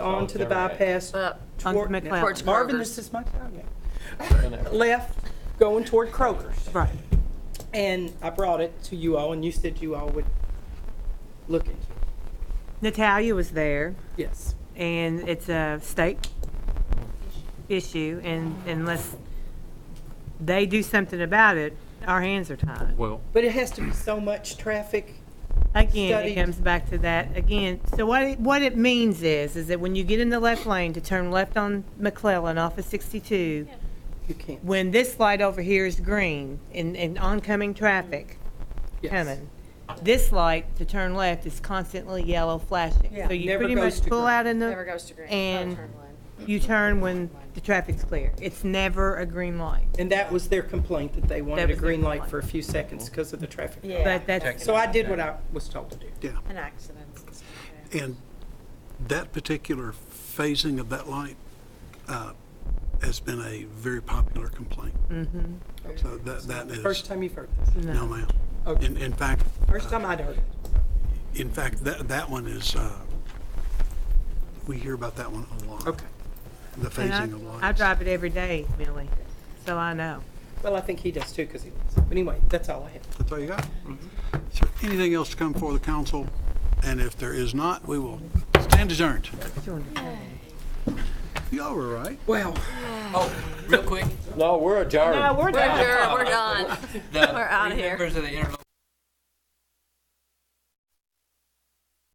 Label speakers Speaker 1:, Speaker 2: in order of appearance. Speaker 1: on to the bypass.
Speaker 2: Onto
Speaker 1: toward-
Speaker 2: Uh, McLeod.
Speaker 1: Towards
Speaker 2: Towards
Speaker 1: Marvin,
Speaker 3: Kroger's.
Speaker 1: this is my time. now. Left, going toward Kroger's.
Speaker 2: Right.
Speaker 1: And I brought it to you all, and you said you all would look into it.
Speaker 2: Natalia was there,
Speaker 1: Yes.
Speaker 2: and it's a state issue, and unless they do something about it, our hands are tied.
Speaker 4: Well,
Speaker 1: But it has to be so much traffic.
Speaker 2: Again,
Speaker 1: Study.
Speaker 2: it comes back to that again. So what it, what it means is, is that when you get in the left lane to turn left on McClellan off of 62,
Speaker 1: You can't.
Speaker 2: when this light over here is green and, and oncoming traffic
Speaker 1: Yes.
Speaker 2: coming, this light to turn left is constantly yellow flashing. So you
Speaker 1: Never
Speaker 2: pretty
Speaker 1: goes
Speaker 2: much
Speaker 1: to
Speaker 2: pull
Speaker 1: green.
Speaker 2: out in
Speaker 3: Never
Speaker 2: the,
Speaker 3: goes to green.
Speaker 2: and you turn when the traffic's clear. It's never a green light.
Speaker 1: And that was their complaint, that they wanted a
Speaker 2: was their
Speaker 1: green light
Speaker 2: complaint.
Speaker 1: for a few seconds because of the traffic.
Speaker 2: But that's,
Speaker 1: So I did what I was told to do.
Speaker 3: An accident. and stuff, yeah.
Speaker 5: And that particular phasing of that light uh, has been a very popular complaint. So that, that
Speaker 1: Mm-hmm. First
Speaker 5: is,
Speaker 1: time you've heard this.
Speaker 5: no ma'am.
Speaker 2: Mm-hmm.
Speaker 1: Okay.
Speaker 5: In, in fact, uh,
Speaker 1: First time I'd heard it.
Speaker 5: in fact, that, that one is, uh, we hear about that one a lot.
Speaker 1: Okay.
Speaker 5: The
Speaker 2: and
Speaker 5: phasing of lights.
Speaker 2: I, I drive it every day, Millie, so I know.
Speaker 1: Well, I think he does too because he lives. But anyway, that's all I have.
Speaker 5: That's all you got?
Speaker 1: Mm-hmm.
Speaker 5: Is there anything else to come before the council? And if there is not, we will stand adjourned. Y'all were right.
Speaker 1: Well.
Speaker 6: Real quick,
Speaker 7: No, we're adjourned.
Speaker 2: we're
Speaker 3: We're done. We're done.
Speaker 6: the
Speaker 3: We're outta
Speaker 6: three
Speaker 3: here.
Speaker 6: members of the interlocal